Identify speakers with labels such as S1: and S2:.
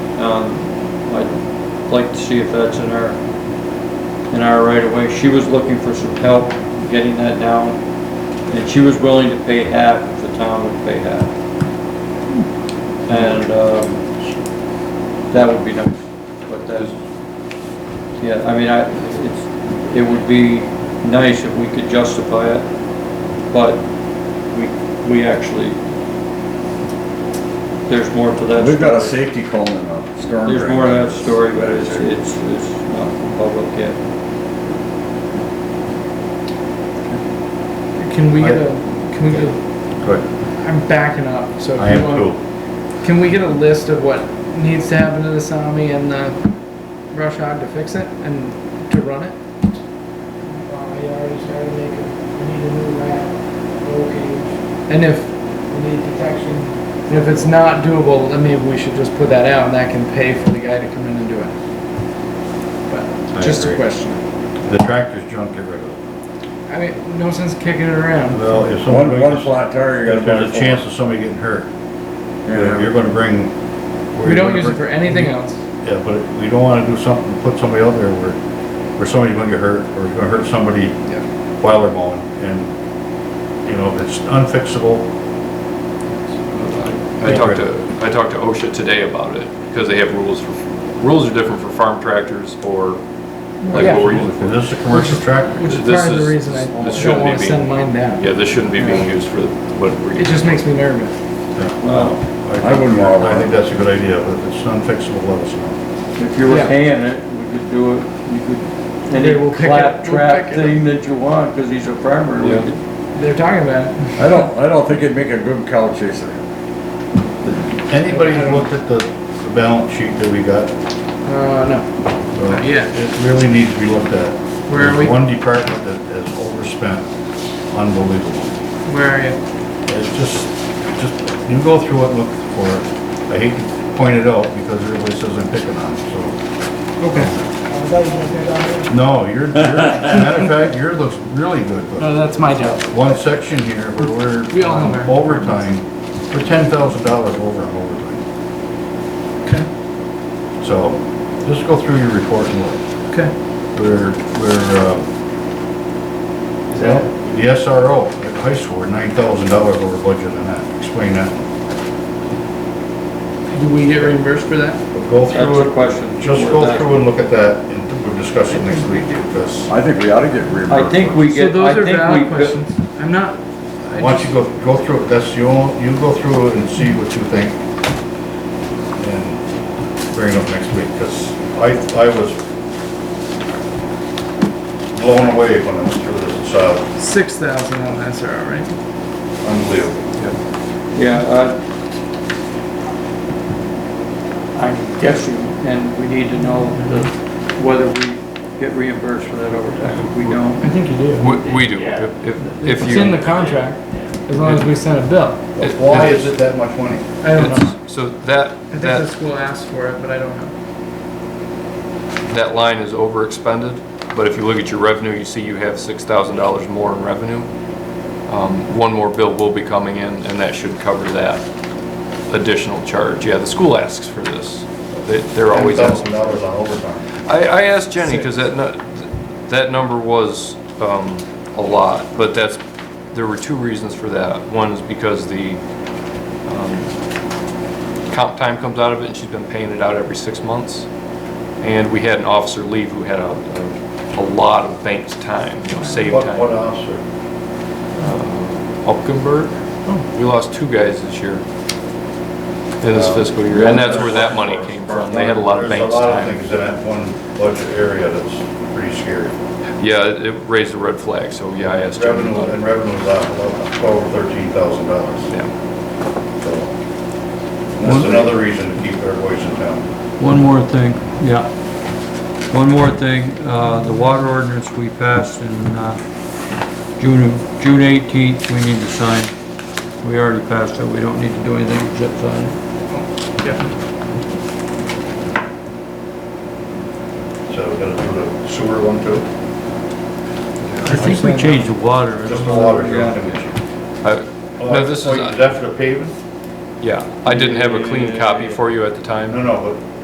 S1: Um, I'd like to see if that's in our, in our right of way. She was looking for some help getting that down, and she was willing to pay half if the town would pay half. And, um, that would be nice, but that's, yeah, I mean, I, it's, it would be nice if we could justify it, but we, we actually, there's more to that.
S2: We've got a
S1: story.
S2: safety cone and a storm drain.
S1: There's more to that story, but it's, it's, it's not for public yet.
S3: Can we get a, can we get, a-
S4: Good.
S3: I'm backing up, so. if
S4: I am
S3: you want-
S4: too.
S3: Can we get a list of what needs to happen to the Sami and the rush hog to fix it and to run it?
S5: Uh, you already started making, we need a new rat, roll cage,
S3: And if,
S5: we need detection.
S3: and if it's not doable, then maybe we should just put that out and that can pay for the guy to come in and do it.
S4: I
S3: But, just a
S4: agree.
S3: question.
S4: The tractor's junk, get rid of it.
S3: I mean, no sense kicking it around.
S4: Well, if someone,
S2: One, one
S4: if
S2: flat tire, you gotta.
S4: there's a
S2: buy
S4: chance of somebody getting hurt, you're
S2: Yeah.
S4: you're gonna bring.
S3: We don't use it for anything else.
S4: Yeah, but we don't wanna do something, put somebody out there where, where somebody's gonna get hurt, or it's gonna hurt somebody
S3: Yeah.
S4: while they're mowing, and, you know, if it's unfixable,
S6: I talked to, I talked to OSHA today about it, because they have rules for, rules are different for farm tractors or, like,
S3: Yeah.
S6: what we're using
S4: if
S6: for.
S4: this is a commercial tractor,
S3: Which is
S6: This
S3: part of the
S6: is-
S3: reason I
S6: this
S3: don't
S6: shouldn't be
S3: wanna send
S6: being-
S3: mine down.
S6: Yeah, this shouldn't be being used for what we're.
S3: It just makes me nervous.
S1: Well,
S2: I wouldn't want
S4: I think
S2: one.
S4: that's a good idea, but if it's unfixable, let us know.
S1: if you were
S3: Yeah.
S1: paying it, we could do it, you could, any
S3: Okay, we'll pick it- we'll
S1: claptrap
S3: pick it up.
S1: thing that you want, because he's a farmer. we
S6: Yeah.
S1: could-
S3: They're talking about it.
S2: I don't, I don't think it'd make a good cow chaser.
S4: Anybody who looked at the, the balance sheet that we got?
S3: Uh, no.
S4: uh,
S3: Not yet.
S4: It really needs to be looked at.
S3: Where are we?
S4: There's One department that has overspent, unbelievable.
S3: Where are you?
S4: It's just, just, you go through it, look for it. I hate to point it out because everybody says I'm picking on, it,
S3: Okay.
S5: I was always looking at
S4: so. No, you're, you're, matter of fact, yours looks really good,
S3: No,
S4: but
S3: that's my job.
S4: one section here where
S3: Uh, We
S4: we're
S3: all
S4: on
S3: know where.
S4: overtime, we're ten thousand dollars over on overtime.
S3: Okay.
S4: So, just go through your report and look.
S3: Okay.
S4: We're, we're, um, the SRO at the high school, we're nine thousand dollars over budget on that. Explain that.
S3: Do we get reimbursed for that?
S4: But go
S1: That's
S4: through
S1: a
S4: it,
S1: question.
S4: just go through and look at that and we'll discuss it next week because
S2: I think we ought to get reimbursed.
S1: I think we
S3: So
S1: get, I
S3: those are
S1: think
S3: valid
S1: we,
S3: questions.
S1: could-
S3: I'm not. I
S4: once
S3: just-
S4: you go, go through it, that's the only, you go through it and see what you think. And bring it up next week because I, I was blown away when I went through this. It's uh,
S3: Six thousand on SRO, right?
S4: unbelievable.
S1: yeah, uh, I'm guessing, and we need to know the-
S4: Mm-hmm.
S1: whether we get reimbursed for that overtime. If we don't,
S3: I think you do.
S6: We, we do, if, if- if
S3: It's
S6: you.
S3: in the contract, as long as we send a bill.
S6: it-
S4: Why is it that much money?
S3: I don't know.
S6: it's- So that,
S3: I think the
S6: that,
S3: school asked for it, but I don't know.
S6: that line is over expended, but if you look at your revenue, you see you have six thousand dollars more in revenue. Um, one more bill will be coming in, and that should cover that additional charge. Yeah, the school asks for this. They, they're always asking.
S4: Thousand dollars on overtime.
S6: I, I asked Jenny, because that, nu- that number was, um, a lot, but that's, there were two reasons for that. One is because the, um, comp time comes out of it, and she's been paying it out every six months. And we had an officer leave who had a, a lot of banked time, you know, saved
S4: What, what
S6: time.
S4: officer?
S6: Upkenberg, Oh, we lost two guys this year, in this fiscal year, and that's where that money came from. They had a lot of banked
S4: Um, There's a lot of
S6: time.
S4: things in that one budget area that's pretty scary.
S6: Yeah, it it raised a red flag, so yeah, I asked Jenny
S4: Revenue,
S6: about it.
S4: and revenue's out about twelve, thirteen thousand dollars.
S6: Yeah.
S4: That's another reason to keep our voice in town.
S1: One more thing, yeah. One more thing, uh, the water ordinance we passed in, uh, June, June eighteenth, we need to sign. We already passed it, we don't need to do anything except sign it.
S3: Yeah.
S4: So we're gonna do the sewer one too.
S1: I think we changed the water.
S4: Just the water.
S1: Yeah.
S6: I- No, this is,
S4: Wait, Is that for the paving?
S6: yeah, I didn't have a clean copy for you at the
S4: No,
S6: time.
S4: no,